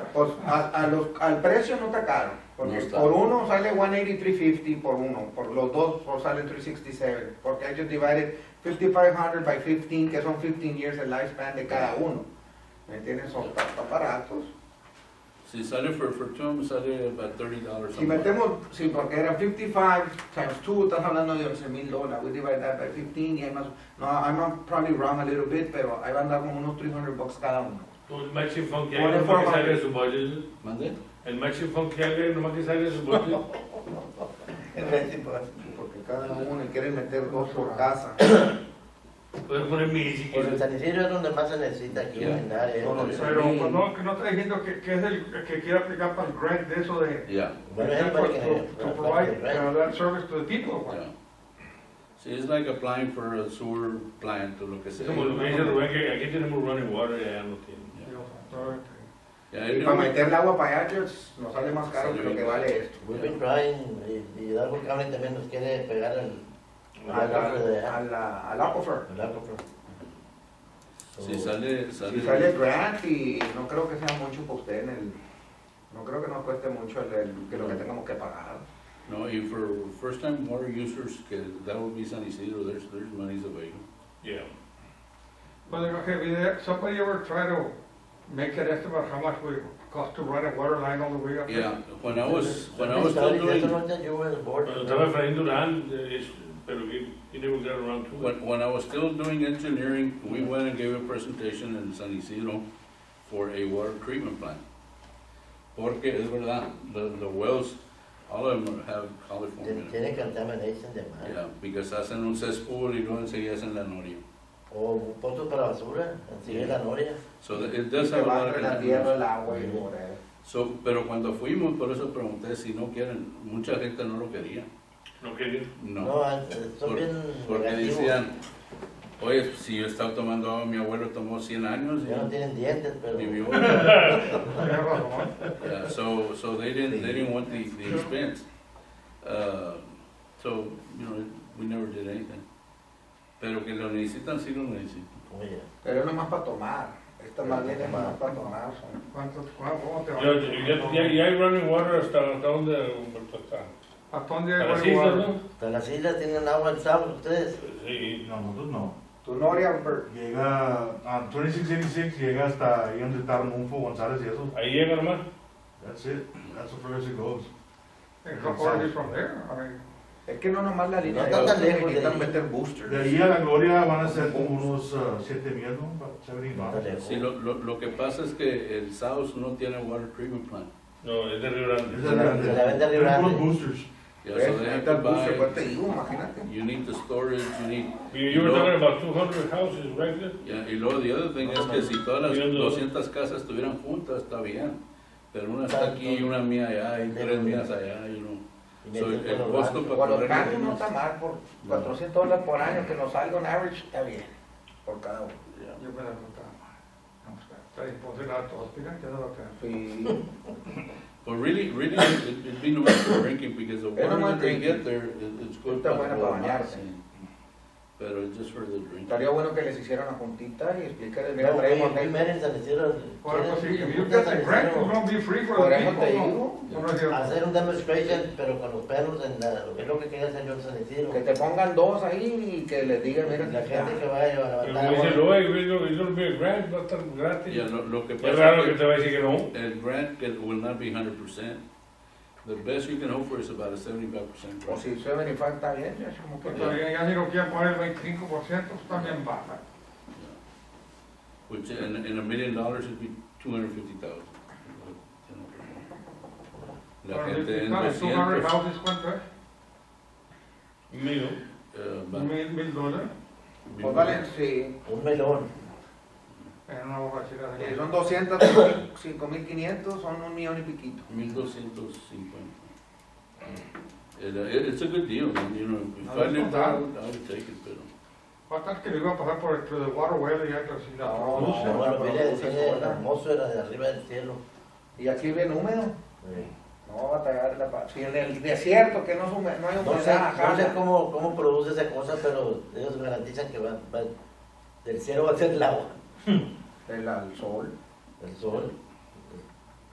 o- Pues, a- a los- al precio no está caro. Porque No está. por uno sale 183.50 por uno, por los dos o sale 367. Porque ellos divided 5500 by 15, que son 15 years el lifespan de cada uno. ¿Me entiendes? Son tan tan baratos. Si sale for, for two, me sale about thirty dollars. Si metemos, sí, porque era 55 times 2, estás hablando de 11 mil dólares. We divide that by 15 y hay más. No, I'm probably wrong a little bit, pero ahí va a andar como unos 300 bucks cada uno. Tú el Maxi Funk ya Por no más que informa- sale de su bolsillo. ¿Mande? El Maxi Funk ya no más que sale de su bolsillo. Porque cada uno quiere meter dos por casa. Puedes poner mi si Pues en quieres. San Isidro es donde más se necesita aquí Yeah. en el área. Todo Bueno, eso. Pero pues, no, que no está diciendo que, que es el que quiere aplicar para el grant de eso de Yeah, es el parque to, general, to el parque provide general. uh, that service to the people. pues. yeah. See, it's like applying for a sewer plant o lo que Es sea. como lo que dice Rubén, que aquí tenemos running water y allá no tienen. Sí, o sea, todo este. Yeah, Y everyone- para meter el agua para allá, pues, nos sale más caro que lo que vale esto. We've been trying, y, y Hidalgo County también nos quiere pegar el, A al la- agua de a la- Al aquifer. el aquifer. So, Si sale, sale. Si sale grant y no creo que sea mucho para usted en el... No creo que nos cueste mucho el, el- que lo que tengamos que pagar. No, if for first time water users, que that would be San Isidro, there's, there's money's available. Yeah. But like, okay, Pues, we there, somebody ever try to make an estimate how much we cost to run a water line all the way up? there? Yeah, when I was, when I was Somebody's still telling you, doing, "Don't let you wear the board." Cuando estaba Efraín Durán, eh, es- pero que he never got around to it. When, when I was still doing engineering, we went and gave a presentation in San Isidro for a water treatment plant. Porque es verdad, the, the wells, all of them have Tiene- California. Tiene contamination de mar. Yeah, because hacen un cesspool y luego enseguida hacen la noria. O pozos para basura, sigue la noria. So that- it Y does se have a va lot of entre la tierra, contaminants. el agua y el whatever. So, pero cuando fuimos, por eso pregunté si no quieren, mucha gente no lo quería. No quería. No, No, eh, son Por- bien porque negativos. decían, oye, si yo estaba tomando agua, mi abuelo tomó 100 años Ya no y tienen dientes, pero... vivió. Tienes razón. Yeah, so, so they didn't, they didn't want the, the expense. Uh, so, you know, we never did anything. Pero que lo necesitan, sí lo necesitan. Oye, Pero es nomás para tomar. Esta más bien es nomás para tomar. son- ¿Cuánto, cuánto, cómo te va? Ya, ya, ya, ya hay running water hasta, hasta donde Humberto está. ¿Hasta dónde A hay las water? islas, ¿no? hasta las islas tienen agua el sábado ustedes. Sí. No, nosotros no. Tu noria, Bert. Llega a 2686, llega hasta ahí donde está Arnulfo González y eso. Ahí llega nomás. That's it. That's the first it goes. It's not already from there, I mean, Es que no nomás la línea No de está tan agua, lejos de necesitan ahí. meter De boosters. ahí a la Gloria van a ser como unos 7 millas, ¿no? Seven No está lejos. Sí, lo, lo, lo que pasa es que el South no tiene water treatment plant. No, es de Río Grande. Es de grande. Se la vende a Río Tienen puros Grande. boosters. Yeah, so ¿Ves? they have Necesitan to boosters, pues te buy, digo, imagínate. you need the storage, you need, You, you were No. talking about 200 houses right there? yeah, y luego the other thing es que si todas las Viendo- 200 casas estuvieran juntas, está bien. Pero una está aquí, y una mía allá, y tres mías allá, you know. Y So, meten el con los costo bancos. para Por los correr cambios no los está mal, por 400 dólares por año que nos salga un average, está bien, por cada uno. Yeah. yo me la contaba. No, está- Está imposible a todos, mira, ya no lo tengo. Sí. But really, really, it- it'd be no matter for drinking because the They don't water want that they drinking. get there, it- it's good. Está buena for para bañarse. relaxing. Pero it's just for the drink. Estaría bueno que les hicieran una juntita y explicarles, mira, No, traemos we- we esto. met in San Isidro. Por pues eso, si Quieren- you get the San grant, Isidro it's gonna be free for Por the eso people, te ¿no? digo, No, no es cierto. Hacer un demonstration, pero con los perros en la, lo que es lo que quería hacer yo en San Isidro. que te pongan dos ahí y que les digan, mira, La aquí está. gente que vaya Pero a como dice levantar agua. Loe, it'll, it'll be gratis, va a estar gratis. Yeah, lo, lo que Es pasa raro que es te va a decir que no. que el grant que will not be hundred percent. The best you can hope for is about a seventy-five percent O grant. si se ven está bien, ya es como que... Porque ya- ya si no quieren poner el 25%, también baja. Which, in, in a million dollars, it'd be two hundred fifty thousand. La Pero gente en claro, 200 doscientos, houses, ¿cuánto es? Mío. eh, va- Mil, mil dólares Pues vale, sí, Un melón. en una borrachera eh, de son 200, son 5.500, son un millón y piquito. 1250. It, uh, it- it's a good deal, and, you know, if No, I lived that's there, not I would I would take it, pero. Cuántas que le iba a pasar por el through the waterway y ya que si la No, produce. no, Bueno, pero mire, dulce tiene sola. hermoso, era de arriba del cielo. Y aquí bien húmedo, Sí. no va a tragar la paz. Si en el desierto que no, es hume- no hay No sé, humedad, no sé acá, cómo, cómo produce esa cosa, pero ellos garantizan que va, va- del cielo va a ser el agua, del al sol. el sol.